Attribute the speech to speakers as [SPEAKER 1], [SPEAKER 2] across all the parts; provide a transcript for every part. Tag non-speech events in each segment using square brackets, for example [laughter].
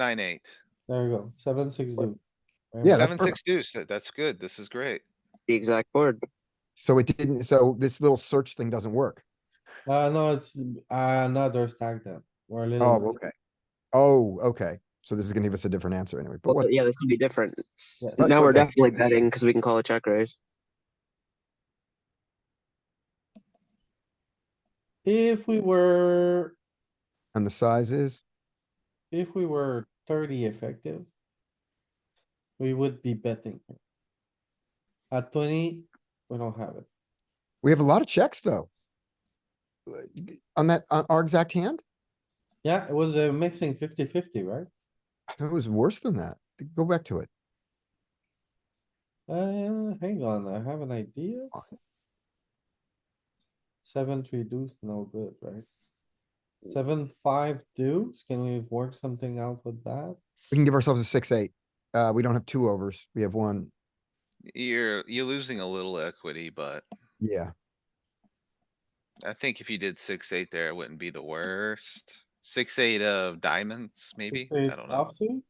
[SPEAKER 1] nine, eight.
[SPEAKER 2] There you go, seven, six, deuce. Very
[SPEAKER 3] Yeah,
[SPEAKER 2] good.
[SPEAKER 3] that's
[SPEAKER 1] Seven, six deuce, that, that's good, this is great.
[SPEAKER 4] the exact board.
[SPEAKER 3] So it didn't, so this little search thing doesn't work.
[SPEAKER 2] Uh, no, it's uh, another stack then. We're a
[SPEAKER 3] Oh,
[SPEAKER 2] little,
[SPEAKER 3] okay. Oh, okay. So this is gonna give us a different answer anyway, but
[SPEAKER 4] Well,
[SPEAKER 3] what,
[SPEAKER 4] yeah, this will be different.
[SPEAKER 2] Yeah.
[SPEAKER 4] Now we're
[SPEAKER 3] Okay.
[SPEAKER 4] definitely betting because we can call a check raise.
[SPEAKER 2] if we were,
[SPEAKER 3] and the size is?
[SPEAKER 2] if we were thirty effective. We would be betting. here. At twenty, we don't have it.
[SPEAKER 3] We have a lot of checks, though. Uh, g- On that, on our exact hand,
[SPEAKER 2] Yeah, it was a mixing 50-50, right?
[SPEAKER 3] I thought it was worse than that. Go back to it.
[SPEAKER 2] Uh, hang on, I have an idea.
[SPEAKER 3] Okay.
[SPEAKER 2] Seven, three deuce, no good, right?
[SPEAKER 3] Mm.
[SPEAKER 2] Seven, five deuce, can we work something out with that?
[SPEAKER 3] We can give ourselves a six, eight. Uh, we don't have two overs. We have one.
[SPEAKER 1] You're, you're losing a little equity, but
[SPEAKER 3] Yeah,
[SPEAKER 1] I think if you did six, eight there, it wouldn't be the worst. Six, eight of diamonds, maybe?
[SPEAKER 2] Six,
[SPEAKER 1] I
[SPEAKER 2] eight
[SPEAKER 1] don't know.
[SPEAKER 2] offsuit?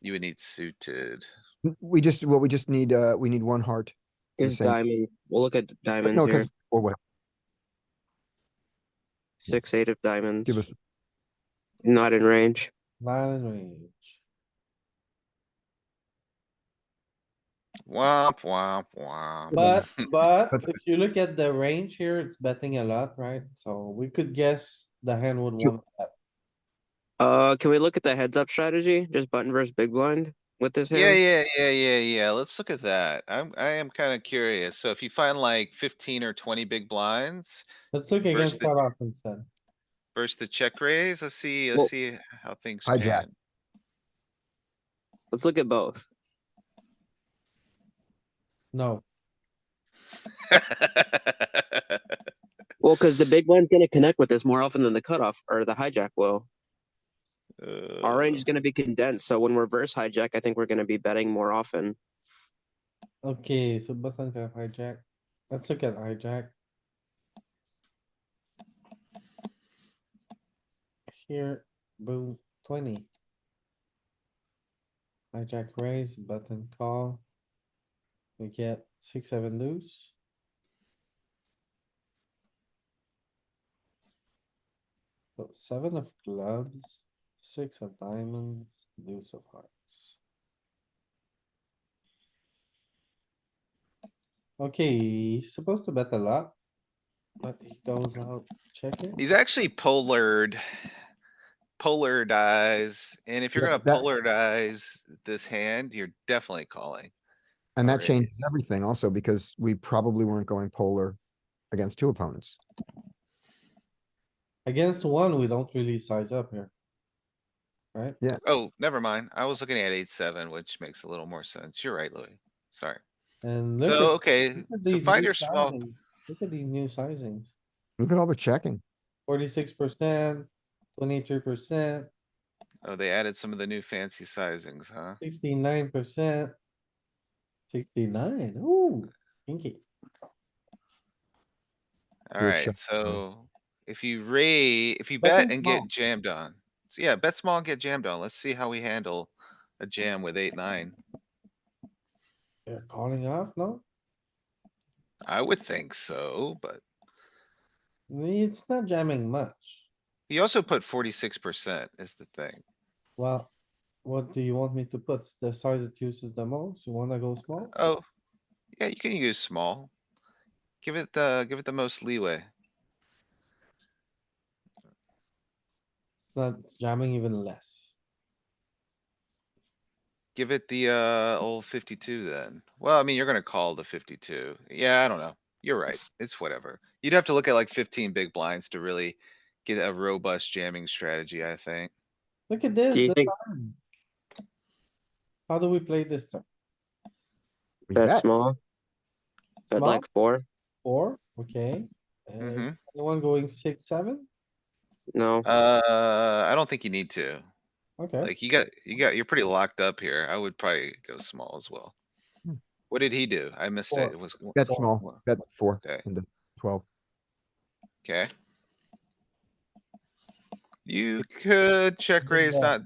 [SPEAKER 1] You would need suited.
[SPEAKER 3] N- we just, well, we just need, uh, we need one heart. The
[SPEAKER 4] Is
[SPEAKER 3] same.
[SPEAKER 4] diamond. We'll look at diamonds
[SPEAKER 3] No,
[SPEAKER 4] here.
[SPEAKER 3] because, or what,
[SPEAKER 4] Six, eight of diamonds.
[SPEAKER 3] give us,
[SPEAKER 4] Not in range.
[SPEAKER 2] Nine in range.
[SPEAKER 1] Womp, womp, womp. [laughs]
[SPEAKER 2] But, but
[SPEAKER 3] That's
[SPEAKER 2] if you look at the range here, it's betting a lot, right? So we could guess the hand would
[SPEAKER 4] Two.
[SPEAKER 2] want that.
[SPEAKER 4] Uh, can we look at the heads up strategy? Just button versus big blind with this hand.
[SPEAKER 1] Yeah, yeah, yeah, yeah, yeah. Let's look at that. I'm, I am kinda curious. So if you find like fifteen or twenty big blinds
[SPEAKER 2] Let's look against
[SPEAKER 1] the-
[SPEAKER 2] cutoff instead.
[SPEAKER 1] versus the check raise, let's see,
[SPEAKER 4] Well-
[SPEAKER 1] let's see how things
[SPEAKER 3] Hijack.
[SPEAKER 1] pan.
[SPEAKER 4] Let's look at both.
[SPEAKER 2] No,
[SPEAKER 1] [laughs]
[SPEAKER 4] Well, because the big blind's gonna connect with this more often than the cutoff or the hijack will.
[SPEAKER 1] Uh,
[SPEAKER 4] Our range is gonna be condensed, so when we're verse hijack, I think we're gonna be betting more often.
[SPEAKER 2] okay, so button to hijack. Let's look at hijack. Here, boom, twenty. Hijack raise, button call. We get six, seven deuce. So Seven of clubs, six of diamonds, deuce of hearts. Okay, he's supposed to bet a lot. But he goes out checking.
[SPEAKER 1] He's actually polared. Polarize, and if you're
[SPEAKER 3] Yeah,
[SPEAKER 1] gonna
[SPEAKER 3] that-
[SPEAKER 1] polarize this hand, you're definitely calling.
[SPEAKER 3] and that
[SPEAKER 1] Sorry.
[SPEAKER 3] changes everything also, because we probably weren't going polar against two opponents.
[SPEAKER 2] Against one, we don't really size up here. Right?
[SPEAKER 1] Oh, never mind. I was looking at eight, seven, which makes a little more sense. You're right, Louis. Sorry.
[SPEAKER 2] And look
[SPEAKER 1] So,
[SPEAKER 2] at-
[SPEAKER 1] okay,
[SPEAKER 2] look at
[SPEAKER 1] so
[SPEAKER 2] these
[SPEAKER 1] find
[SPEAKER 2] new
[SPEAKER 1] your small,
[SPEAKER 2] sizings. Look at these new sizings.
[SPEAKER 3] Look at all the checking.
[SPEAKER 2] Forty-six percent, twenty-three percent,
[SPEAKER 1] oh, they added some of the new fancy sizings, huh?
[SPEAKER 2] sixty-nine percent. Sixty-nine, ooh, pinky.
[SPEAKER 3] Good
[SPEAKER 1] Alright,
[SPEAKER 3] shot,
[SPEAKER 1] so if you raise, if you
[SPEAKER 2] Betting
[SPEAKER 1] bet and
[SPEAKER 2] small.
[SPEAKER 1] get jammed on. So yeah, bet small, get jammed on. Let's see how we handle a jam with eight, nine.
[SPEAKER 2] They're calling off, no?
[SPEAKER 1] I would think so, but
[SPEAKER 2] It's not jamming much.
[SPEAKER 1] he also put forty-six percent is the thing.
[SPEAKER 2] Well, what do you want me to put? The size it uses the most? You wanna go small?
[SPEAKER 1] Oh, yeah, you can use small. Give it the, give it the most leeway.
[SPEAKER 2] Not jamming even less.
[SPEAKER 1] Give it the, uh, old fifty-two then. Well, I mean, you're gonna call the fifty-two. Yeah, I don't know. You're right.
[SPEAKER 3] [laughs]
[SPEAKER 1] It's whatever. You'd have to look at like fifteen big blinds to really get a robust jamming strategy, I think.
[SPEAKER 2] Look at this.
[SPEAKER 4] Do you
[SPEAKER 2] this
[SPEAKER 4] think-
[SPEAKER 2] time. How do we play this turn?
[SPEAKER 3] We
[SPEAKER 4] Bet
[SPEAKER 3] bet.
[SPEAKER 4] small, bet
[SPEAKER 2] Small?
[SPEAKER 4] like four.
[SPEAKER 2] Four, okay. Uh,
[SPEAKER 3] Mm-hmm.
[SPEAKER 1] Mhm.
[SPEAKER 2] Anyone going six, seven?
[SPEAKER 4] No,
[SPEAKER 1] Uh, I don't think you need to.
[SPEAKER 2] Okay,
[SPEAKER 1] Like, you got, you got, you're pretty locked up here. I would probably go small as well.
[SPEAKER 3] Hmm.
[SPEAKER 1] What did he do? I missed it.
[SPEAKER 2] Four.
[SPEAKER 1] It was.
[SPEAKER 3] Bet
[SPEAKER 1] four,
[SPEAKER 3] small,
[SPEAKER 1] four.
[SPEAKER 3] bet four
[SPEAKER 1] Okay,
[SPEAKER 3] into twelve.
[SPEAKER 1] okay.
[SPEAKER 2] You could check raise,
[SPEAKER 1] Yeah.
[SPEAKER 2] not